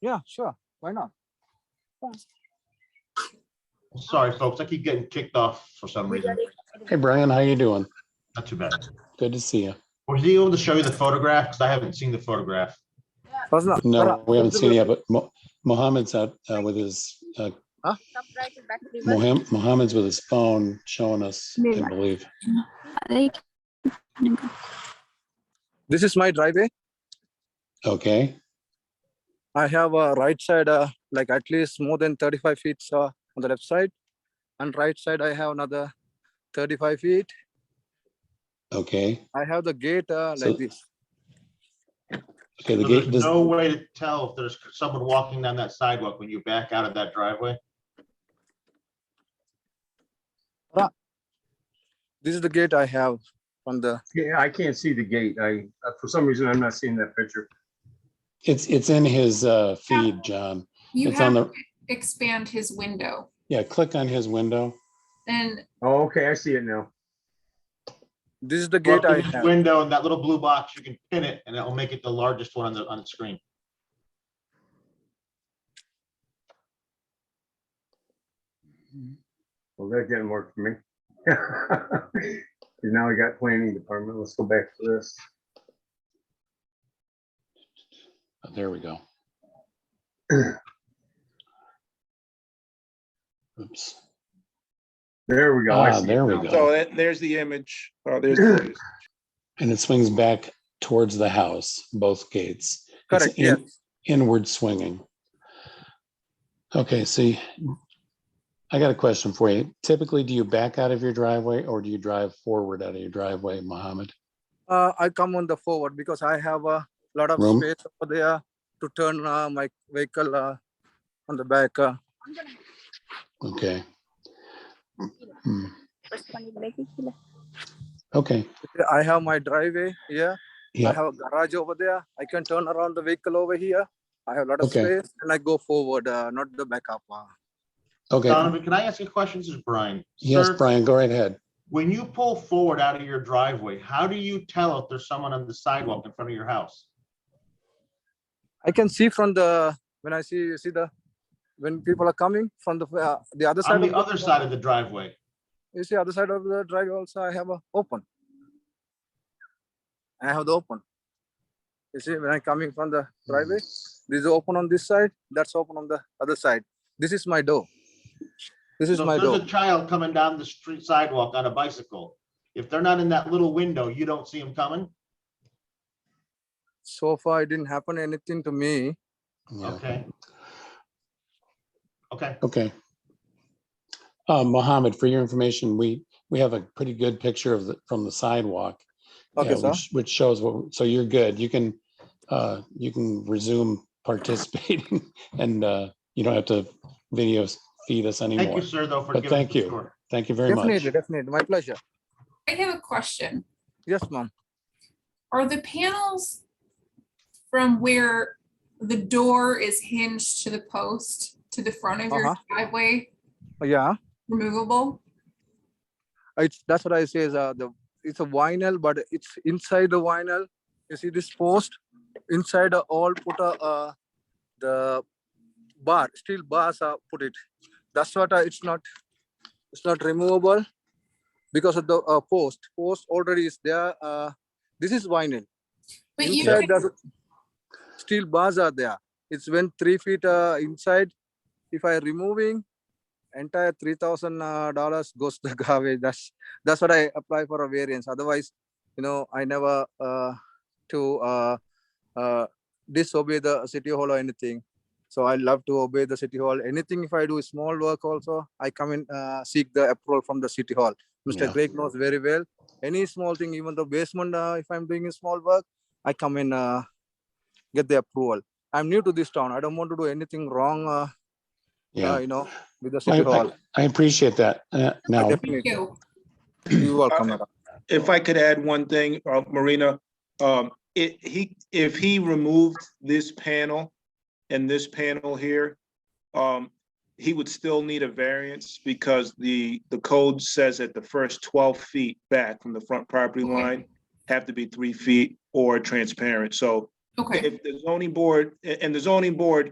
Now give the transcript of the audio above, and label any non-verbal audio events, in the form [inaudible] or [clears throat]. Yeah, sure. Why not? Sorry, folks, I keep getting kicked off for some reason. Hey, Brian, how you doing? Not too bad. Good to see you. Was he able to show you the photograph? Because I haven't seen the photograph. Fazla, No, Farah, we haven't seen you yet, but Mo- Mohammed's out uh, with his, uh, Moham- Mohammed's with his phone showing us, I Mirror. believe. This is my driveway. Okay, I have a right side, uh, like at least more than 35 feet uh, on the left side. And right side, I have another 35 feet. okay. I have the gate uh, So- like this. Okay, So the gate, There's does- no way to tell if there's someone walking down that sidewalk when you back out of that driveway. This is the gate I have on the, Yeah, I can't see the gate. I, uh, for some reason, I'm not seeing that picture. it's, it's in his uh, feed, John. You It's on have to the, expand his window, yeah, click on his window. then Oh, okay, I see it now. this is the Go up gate to I his have. Window and that little blue box, you can pin it and it'll make it the largest one on the, on the screen. Well, that didn't work for me. [laughs] 'Cause Now we got planning department. Let's go back to this. Oh, There we [clears throat] go. Oops. There we go. I Ah, see it there we now. go. So that, there's the image. Oh, there's, the image. And it swings back towards the house, both gates. It's Correct, in- Inward swinging. Okay, see, I got a question for you. Typically, do you back out of your driveway or do you drive forward out of your driveway, Mohammed? Uh, I come on the forward because I have a lot of Room? space over there to turn uh, my vehicle uh, on the back. Uh, Okay. Hmm, Why Okay, I have my driveway here. I yeah, have a garage over there. I can turn around the vehicle over here. I have a lot of Okay. space and I go forward, uh, not the backup. Uh, okay. Donovan, can I ask you a question? This is Brian. Yes, Sir, Brian, go right ahead. When you pull forward out of your driveway, how do you tell if there's someone on the sidewalk in front of your house? I can see from the when I see you see the when people are coming from the uh, the other side. On the of other side of the driveway. you see other side of the driveway also. I have a open. I have the open. You see when I'm coming from the driveway, this is open on this side. That's open on the other side. This is my door. This is So my if there's door. a child coming down the street sidewalk on a bicycle. If they're not in that little window, you don't see them coming? So far, it didn't happen anything to me. Yeah. Okay. Okay, Okay. Uh, Mohammed, for your information, we, we have a pretty good picture of the, from the sidewalk. Okay, yeah, sir. which- Which shows what, so you're good. You can, uh, you can resume participating [laughs] and, uh, you don't have to video feed us thank anymore. you, sir, though, for But giving us thank the you. tour. Thank you very much. Definitely, definitely. My pleasure. I have a question. Yes, ma'am. Are the panels from where the door is hinged to the post to the front of your Uh-huh. driveway Yeah. removable? It's, that's what I say is uh, the, it's a vinyl, but it's inside the vinyl. You see this post inside uh, all put a, uh, the bar, steel bars are put it. That's what I, it's not, it's not removable because of the uh, post. Post already is there. Uh, this is vinyl. But you Inside could, the steel bars are there. It's when three feet uh, inside. If I removing, entire three thousand uh, dollars goes to [laughs] garbage. That's that's what I apply for a variance. Otherwise, you know, I never uh, to uh, uh, disobey the city hall or anything. So I love to obey the city hall. Anything if I do small work also, I come in uh, seek the approval from the city hall. Mr. Yeah. Craig knows very well. Any small thing, even the basement, uh, if I'm doing a small work, I come in uh, get the approval. I'm new to this town. I don't want to do anything wrong. Uh, uh, Yeah, you know, with the I, city hall. [clears throat] I- I appreciate that. Uh, now, Definitely. thank you. You're welcome. madam. if I could add one thing, uh, Marina, um, it, he, if he removed this panel and this panel here, um, he would still need a variance because the, the code says that the first twelve feet back from the front property Okay. line have to be three feet or transparent. So Okay, if the zoning board, a- and the zoning board